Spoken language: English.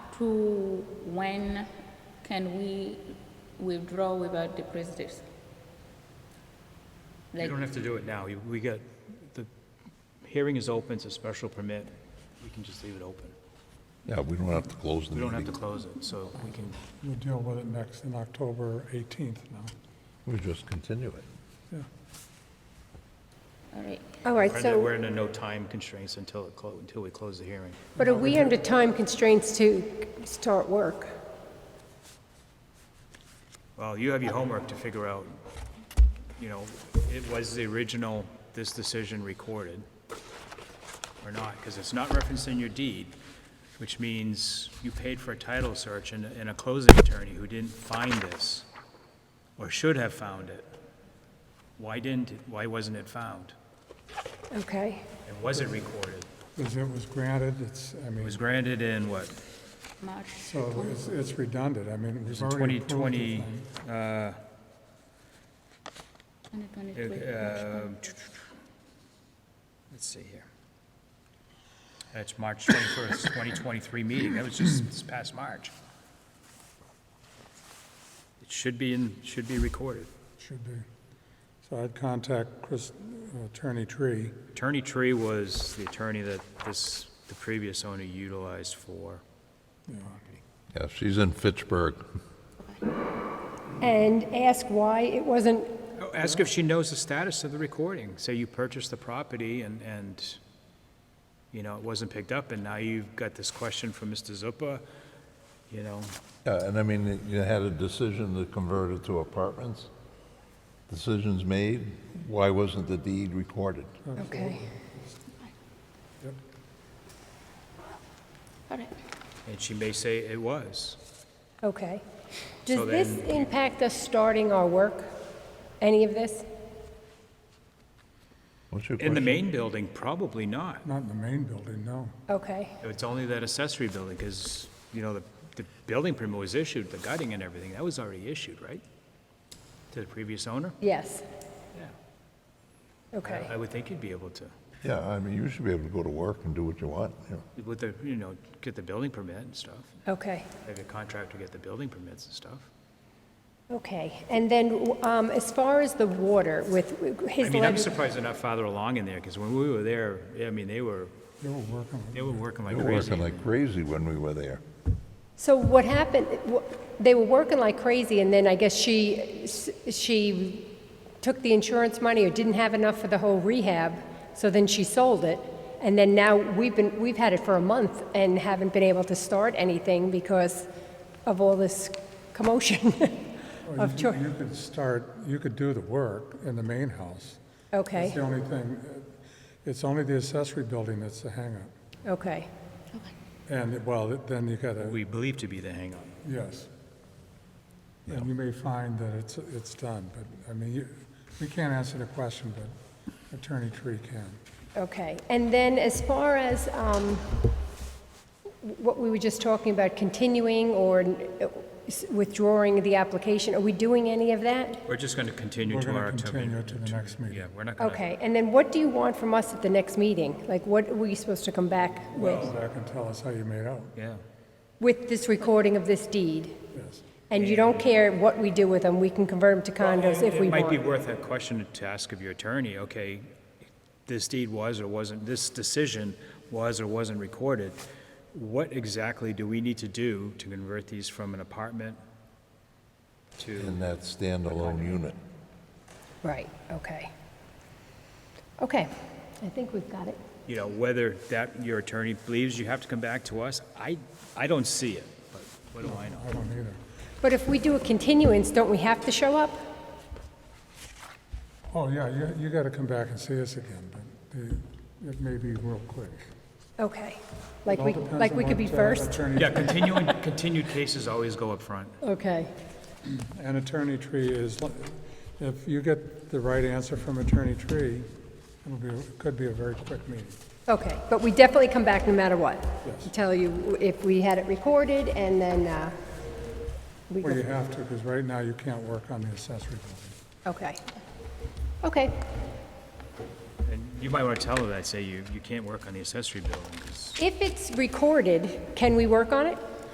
to when can we withdraw without the prejudice? You Like, don't have to do it now. You- We got, the hearing is open, it's a special permit. We can just leave it open. Yeah, we don't have to close the We don't have to meeting. close it, so we can, We'll deal with it next, in October 18th now. We just continue it. all right, All right, we're under- we're so, under no time constraints until it, clo- until we close the hearing. but are we under time constraints to start work? Well, you have your homework to figure out, you know, it was the original, this decision recorded or not, because it's not referenced in your deed, which means you paid for a title search and, and a closing attorney who didn't find this or should have found it. Why didn't, it- why wasn't it found? Okay, And was it recorded? Because it was granted, it's, I It mean, was granted in what, March, so it's- it's redundant, I mean, It was we've in already approved the 2020, thing. uh, 2023. Um, Let's see here. That's March 21st, 2023 meeting. That was just this past March. It should be in, should be recorded. Should be. So I'd contact Chris, uh, Attorney Tree. Attorney Tree was the attorney that this, the previous owner utilized for. Yeah, she's in Fitchburg. and ask why it wasn't, Oh, Ask if she knows the status of the recording. Say you purchased the property and, and, you know, it wasn't picked up, and now you've got this question from Mr. Zuppa, you know, Yeah, and I mean, you had a decision to convert it to apartments. Decisions made, why wasn't the deed recorded? okay. All right, and she may say it was. Okay. Does So this then- impact us starting our work? Any of this? What's your In the question? main building, probably not. Not in the main building, no. Okay, It's only that accessory building, because, you know, the, the building permit was issued, the gutting and everything, that was already issued, right? To the previous owner? yes, Yeah. okay. I would think you'd be able to, Yeah, I mean, you should be able to go to work and do what you want, you know. with the, you know, get the building permit and stuff, Okay, have your contractor get the building permits and stuff. okay. And then, um, as far as the water with I his mean, I'm letter, surprised they're not farther along in there, because when we were there, I mean, they were, They were working with they were working They like were crazy. working like crazy when we were there. so what happened, wh- they were working like crazy, and then I guess she, she took the insurance money or didn't have enough for the whole rehab, so then she sold it. And then now we've been, we've had it for a month and haven't been able to start anything because of all this commotion Well, Oh, you of, could- choi- You could start, you could do the work in the main house. That's okay, the only thing, uh, it's only the accessory building that's the hangup. okay. And, well, then you gotta. We believe to be the hang-up. Yes. And you may find that it's, it's done, but, I mean, you, we can't answer the question, but Attorney Tree can. Okay, and then as far as um, what we were just talking about, continuing or uh, withdrawing the application, are we doing any of that? We're just gonna continue We're to our gonna October. continue to the next meeting. Yeah, we're not gonna, Okay, and then what do you want from us at the next meeting? Like, what were you supposed to come back with? Come back and tell us how you made out, yeah. With this recording of this deed? yes. And you don't care what we do with them, we can convert them to condos if we It might be want? worth a question to ask of your attorney, okay, this deed was or wasn't, this decision was or wasn't recorded. What exactly do we need to do to convert these from an apartment to, In that standalone unit. Right, okay. Okay, I think we've got it. you know, whether that, your attorney believes you have to come back to us? I, I don't see it, but what do I know? I don't either. But if we do a continuance, don't we have to show up? Oh, yeah, you, you gotta come back and see us again, but the, it may be real quick. Okay, like All we, depends like on we could be what, uh, first? Attorney- Yeah, continuing, continued cases always go up front. Okay, And Attorney Tree is, li- if you get the right answer from Attorney Tree, it'll be, it could be a very quick meeting. okay, but we definitely come back no matter what? Yes. Tell you if we had it recorded and then, uh, we Well, you go, have to, because right now you can't work on the accessory building. okay. Okay, And you might want to tell her that, say you, you can't work on the accessory building, 'cause if it's recorded, can we work on it?